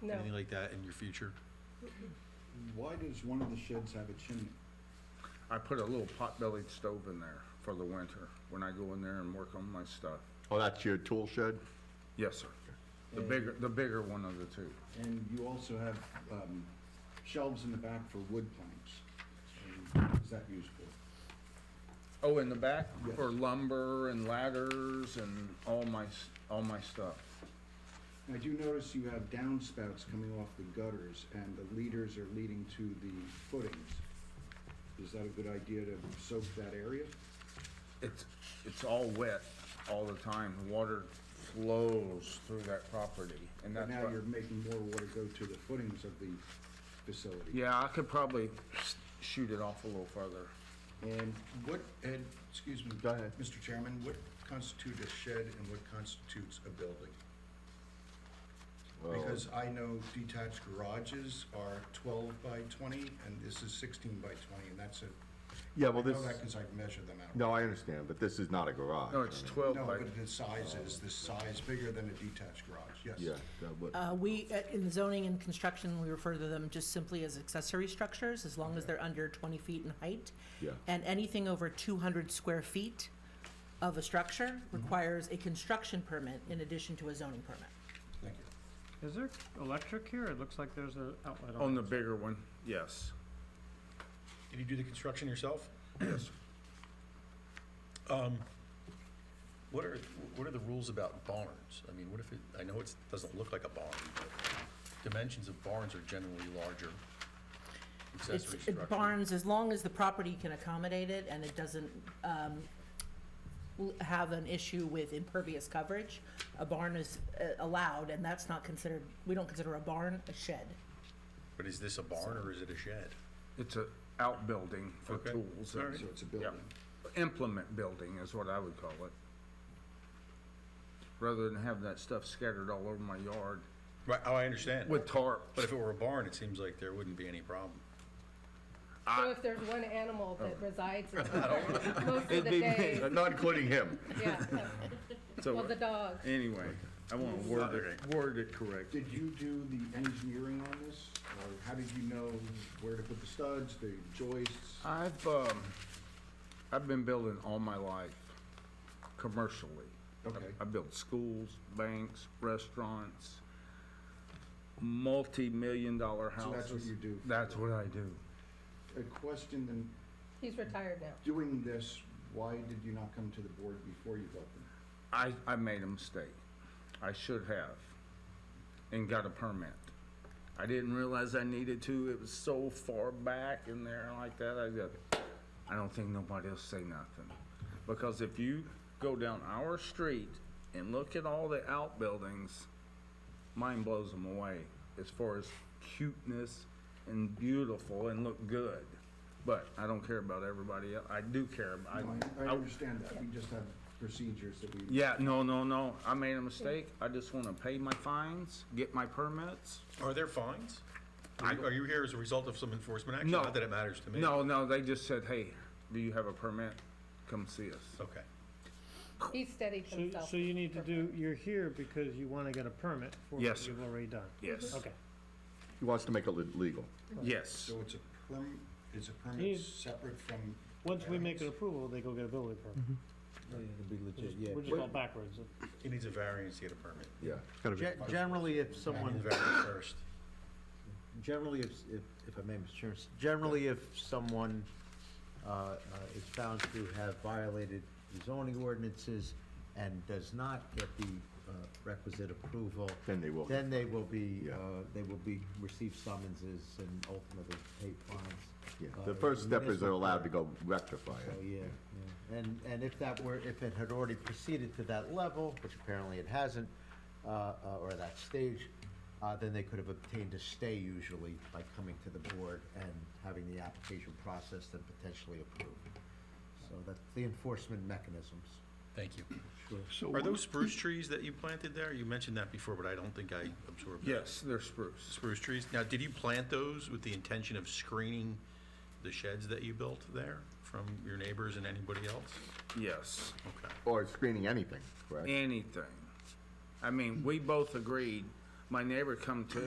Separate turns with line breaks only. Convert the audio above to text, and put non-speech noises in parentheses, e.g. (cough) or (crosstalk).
No.
anything like that in your future?
Why does one of the sheds have a chimney?
I put a little pot-bellied stove in there for the winter, when I go in there and work on my stuff.
Oh, that's your tool shed?
Yes, sir. The bigger, the bigger one of the two.
And you also have um, shelves in the back for wood planks. And Is that used for?
Oh, in the back
Yes.
for lumber and ladders and all my, s- all my stuff.
And I do notice you have downspouts coming off the gutters and the leaders are leading to the footings. Is that a good idea to soak that area?
It's, it's all wet all the time. The Water flows through that property and
But
that's
now
what-
you're making more water go to the footings of the facility.
Yeah, I could probably shoot it off a little further.
And what, Ed, excuse me.
Go ahead.
Mr. Chairman, what constitutes a shed and what constitutes a building?
Well,
Because I know detached garages are twelve by twenty, and this is sixteen by twenty, and that's a.
Yeah, well,
I
this-
know that because I've measured them out.
No, I understand, but this is not a garage.
No, it's twelve
No,
by,
but the size is, the size bigger than a detached garage, yes.
Yeah, that would,
Uh, We, uh, in zoning and construction, we refer to them just simply as accessory structures, as long as they're under 20 feet in height.
Yeah.
And anything over 200 square feet of a structure requires a construction permit in addition to a zoning permit.
Thank you.
Is there electric here? It looks like there's an outlet on
on
it.
the bigger one, yes.
Did you do the construction yourself?
Yes.
Um, what are, what are the rules about barns? I mean, what if it, I know it doesn't look like a barn, but dimensions of barns are generally larger.
It's
Accessory
it
structure.
Barns, as long as the property can accommodate it and it doesn't um, l- have an issue with impervious coverage, a barn is uh, allowed, and that's not considered, we don't consider a barn a shed.
But is this a barn or is it a shed?
It's a outbuilding for
Okay.
tools. and-
So it's a building.
Yeah. Implement building is what I would call it. Rather than have that stuff scattered all over my yard
Right, oh, I understand.
with tarp.
But if it were a barn, it seems like there wouldn't be any problem.
So if there's one animal
Oh.
that resides
(laughs)
in town most of the
It'd be me,
day,
not including him.
yeah, (laughs) well, the
so,
dog.
anyway, I wanna word it, word it correct.
Did you do the engineering on this, or how did you know where to put the studs, the joists?
I've, um, I've been building all my life commercially.
Okay.
I built schools, banks, restaurants, multi-million dollar
So
houses.
that's what you do.
That's what I do.
A question, then,
He's retired now.
doing this, why did you not come to the board before you built them?
I, I made a mistake. I should have and got a permit. I didn't realize I needed to. It was so far back in there like that. I go, I don't think nobody'll say nothing. Because if you go down our street and look at all the outbuildings, mine blows them away as far as cuteness and beautiful and look good. But I don't care about everybody else. I do care. about-
No, I- I
I-
understand that, we just have procedures that we.
yeah, no, no, no. I made a mistake. I just want to pay my fines, get my permits.
Are there fines? Are you- are you here as a result of some enforcement action?
No.
Not that it matters to me.
No, no, they just said, hey, do you have a permit? Come see us.
Okay.
He's steadied
So,
himself.
so you need to do, you're here because you wanna get a permit for what
Yes,
you've already done?
Yes,
Okay.
He wants to make it le- legal.
yes.
it's a perm, is a
He's-
separate from?
Once we make an approval, they go get a building permit. We're just all backwards.
He needs a variance to get a permit.
Yeah.
Ge- Generally, if someone,
Variance first.
generally, if, if, if I may, Mr. Chairman, generally, if someone, uh, uh, is found to have violated the zoning ordinances and does not get the, uh, requisite approval.
Then they will.
Then they will be,
Yeah.
uh, they will be, receive summonses and ultimately pay fines.
Yeah.
uh,
The first step is they're
municipal
allowed to
court.
go rectify
So,
it.
Oh, yeah, yeah. And, and if that were, if it had already proceeded to that level, which apparently it hasn't, uh, uh, or that stage, uh, then they could have obtained a stay usually by coming to the board and having the application processed and potentially approved. So that's the enforcement mechanisms.
Thank you. Are those spruce trees that you planted there? You mentioned that before, but I don't think I absorbed that.
Yes, they're spruce.
Spruce trees. Now, did you plant those with the intention of screening the sheds that you built there from your neighbors and anybody else?
Yes.
Okay.
Or screening anything, right?
Anything. I mean, we both agreed. My neighbor come to